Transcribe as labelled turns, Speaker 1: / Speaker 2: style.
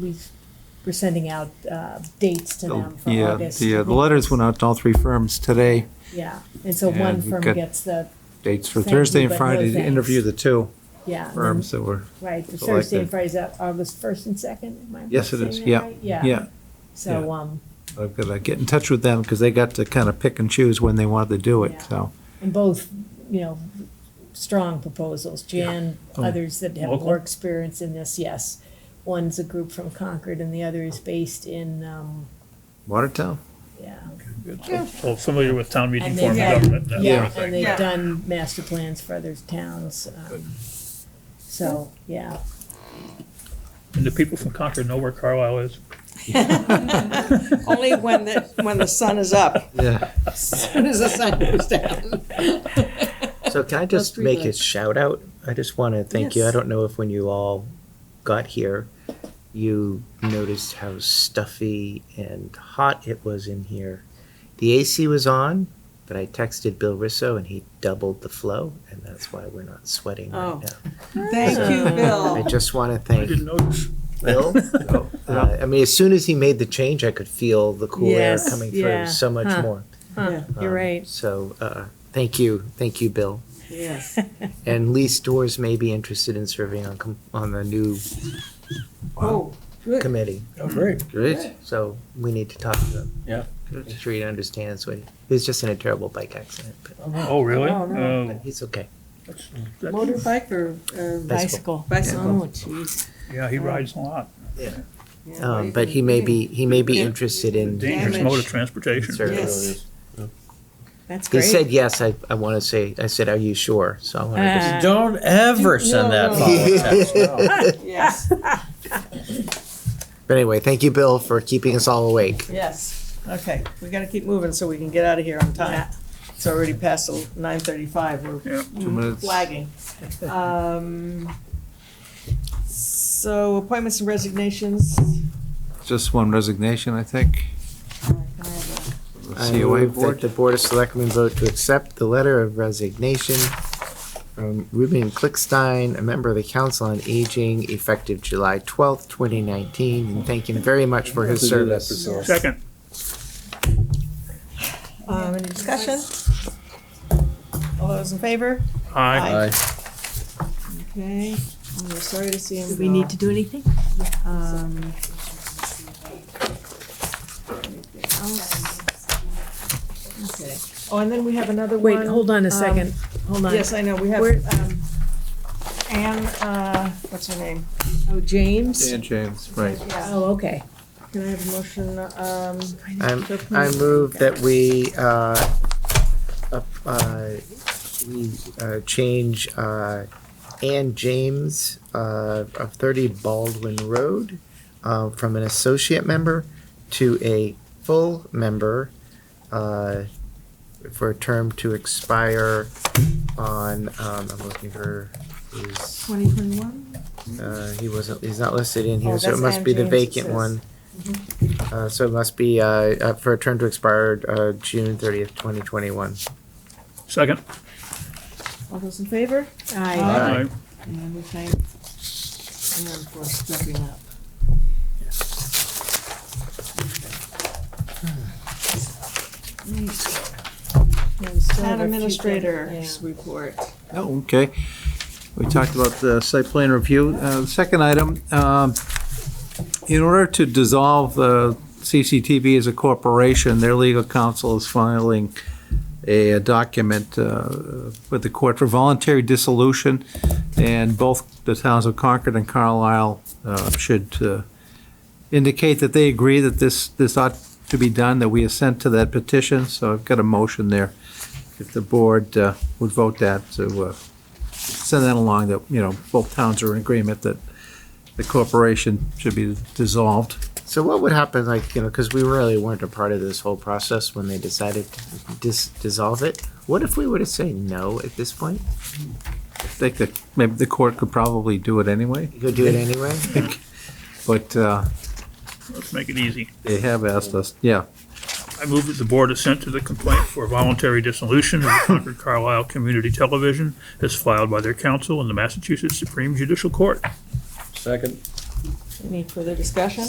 Speaker 1: we were sending out uh, dates to them for
Speaker 2: Yeah,
Speaker 1: August.
Speaker 2: the, uh, the letters went out to all three firms today,
Speaker 1: Yeah, and so one
Speaker 2: And we've
Speaker 1: firm
Speaker 2: got-
Speaker 1: gets the,
Speaker 2: dates for
Speaker 1: Thank you,
Speaker 2: Thursday and
Speaker 1: but no
Speaker 2: Friday to
Speaker 1: thanks.
Speaker 2: interview the two
Speaker 1: yeah, and then-
Speaker 2: firms that were,
Speaker 1: right, the Thursday
Speaker 2: selected.
Speaker 1: and Friday's out August first and second, am I
Speaker 2: yes, it is,
Speaker 1: saying that
Speaker 2: yeah,
Speaker 1: right? Yeah,
Speaker 2: yeah.
Speaker 1: so, um,
Speaker 2: I've got to get in touch with them because they got to kind of pick and choose when they wanted to do
Speaker 1: Yeah.
Speaker 2: it, so.
Speaker 1: and both, you know, strong proposals, Jan,
Speaker 2: Oh.
Speaker 1: others that have
Speaker 3: Local?
Speaker 1: more experience in this, yes. One's a group from Concord and the other is based in, um,
Speaker 2: Watertown?
Speaker 1: yeah.
Speaker 3: So familiar with town meeting
Speaker 1: And
Speaker 3: form
Speaker 1: they've
Speaker 3: of
Speaker 1: had-
Speaker 3: government, uh, that sort
Speaker 1: Yeah,
Speaker 3: of
Speaker 1: and
Speaker 3: thing.
Speaker 1: they've
Speaker 4: Yeah.
Speaker 1: done master plans for other towns, um, so, yeah.
Speaker 3: And the people from Concord know where Carlisle is.
Speaker 4: Only when the, when the sun is up.
Speaker 2: Yeah.
Speaker 4: As soon as the sun goes down.
Speaker 5: So can I just
Speaker 4: Those
Speaker 5: make a
Speaker 4: streetlights.
Speaker 5: shout out? I just want to thank you. I
Speaker 4: Yes.
Speaker 5: don't know if when you all got here, you noticed how stuffy and hot it was in here. The AC was on, but I texted Bill Risso and he doubled the flow, and that's why we're not sweating
Speaker 4: Oh.
Speaker 5: right now.
Speaker 4: Thank you,
Speaker 5: I
Speaker 4: Bill.
Speaker 5: just want to
Speaker 3: I
Speaker 5: thank
Speaker 3: didn't Oh, notice.
Speaker 5: Bill. Uh, I mean, as soon as he made the change, I could feel the cool
Speaker 1: Yes,
Speaker 5: air coming
Speaker 1: yeah,
Speaker 5: through so much
Speaker 1: huh.
Speaker 5: more.
Speaker 1: Huh, you're
Speaker 5: Um,
Speaker 1: right.
Speaker 5: So uh, thank you, thank you, Bill.
Speaker 4: Yes.
Speaker 5: And Lee Stores may be interested in serving on, com- on the new
Speaker 4: Oh, good.
Speaker 5: committee.
Speaker 3: Oh, great.
Speaker 2: Great.
Speaker 5: So we need to talk to them.
Speaker 3: Yeah.
Speaker 5: Make sure he understands what, he was just in a terrible bike accident, but,
Speaker 3: Oh, really?
Speaker 4: Oh, no.
Speaker 5: but
Speaker 3: Oh,
Speaker 5: he's okay.
Speaker 3: that-
Speaker 4: Motorbike or, or
Speaker 5: Bicycle.
Speaker 4: bicycle?
Speaker 1: Oh, jeez.
Speaker 3: Yeah, he rides a lot.
Speaker 4: Yeah.
Speaker 5: Um, but he may be, he may be
Speaker 4: Yeah.
Speaker 5: interested in.
Speaker 3: Dangerous
Speaker 4: Damage.
Speaker 3: mode of transportation.
Speaker 5: serving.
Speaker 4: Yes.
Speaker 1: That's
Speaker 5: He
Speaker 1: great.
Speaker 5: said, yes, I, I want to say, I said, are you sure? So I want to just.
Speaker 1: Uh,
Speaker 6: Don't ever send that
Speaker 4: no.
Speaker 6: follow-up text. no.
Speaker 4: Yes,
Speaker 5: But anyway, thank you, Bill, for keeping us all awake.
Speaker 4: yes. Okay, we gotta keep moving so we can get out of here on time. It's already past nine thirty-five. We're
Speaker 3: Yeah.
Speaker 2: Two minutes.
Speaker 4: flagging. Um, so appointments and resignations.
Speaker 2: Just one resignation, I think. The
Speaker 5: I
Speaker 2: COA
Speaker 5: move that
Speaker 2: board.
Speaker 5: The Board of Selectmen vote to accept the letter of resignation from Ruben Klickstein, a member of the Council on Aging, effective July twelfth, twenty nineteen, and thank him very much for his service.
Speaker 3: Second,
Speaker 4: Um, any discussion? All those in favor?
Speaker 3: aye.
Speaker 4: Okay, I'm sorry to see him.
Speaker 1: Do we need to do anything?
Speaker 4: go. Um, Um, okay. Oh, and then we have another one.
Speaker 1: Wait, hold on a
Speaker 4: um,
Speaker 1: second, hold on.
Speaker 4: Yes, I know, we have,
Speaker 1: Where-
Speaker 4: um, Anne, uh, what's her name? Oh, James.
Speaker 2: Dan James, right.
Speaker 4: Yeah.
Speaker 1: Oh, okay.
Speaker 4: Can I have a motion, um,
Speaker 5: I'm, I move that we, uh, up- uh, we, uh, change, uh, Ann James, uh, of thirty Baldwin Road, uh, from an associate member to a full member, uh, for a term to expire on, um, I'm looking for, his
Speaker 4: twenty twenty-one?
Speaker 5: uh, he wasn't, he's not listed in here,
Speaker 4: Oh,
Speaker 5: so it
Speaker 4: that's
Speaker 5: must be the
Speaker 4: Ann James it
Speaker 5: vacant
Speaker 4: says. Mm-hmm.
Speaker 5: one. Uh, so it must be, uh, uh, for a term to expire, uh, June thirtieth, twenty twenty-one.
Speaker 3: Second,
Speaker 4: All those in favor?
Speaker 1: I,
Speaker 5: Aye.
Speaker 3: aye.
Speaker 4: And we thank Anne for stepping up. Town administrator's report.
Speaker 2: Oh, okay. We talked about the site plan review. Uh, the Second item, um, in order to dissolve uh, CCTV as a corporation, their legal counsel is filing a a document uh, with the court for voluntary dissolution, and both the towns of Concord and Carlisle uh, should uh, indicate that they agree that this, this ought to be done, that we assent to that petition, so I've got a motion there. If the board uh, would vote that to uh, send that along, that, you know, both towns are in agreement that the corporation should be dissolved.
Speaker 5: So what would happen, like, you know, because we really weren't a part of this whole process when they decided to dis- dissolve it? What if we were to say no at this point?
Speaker 2: I think that maybe the court could probably do it anyway,
Speaker 5: You could do it anyway?
Speaker 2: but uh,
Speaker 3: Let's make it easy.
Speaker 2: they have asked us, yeah.
Speaker 3: I move that the board assent to the complaint for voluntary dissolution of the Concord Carlisle Community Television as filed by their counsel in the Massachusetts Supreme Judicial Court.
Speaker 6: Second.
Speaker 1: Any further discussion?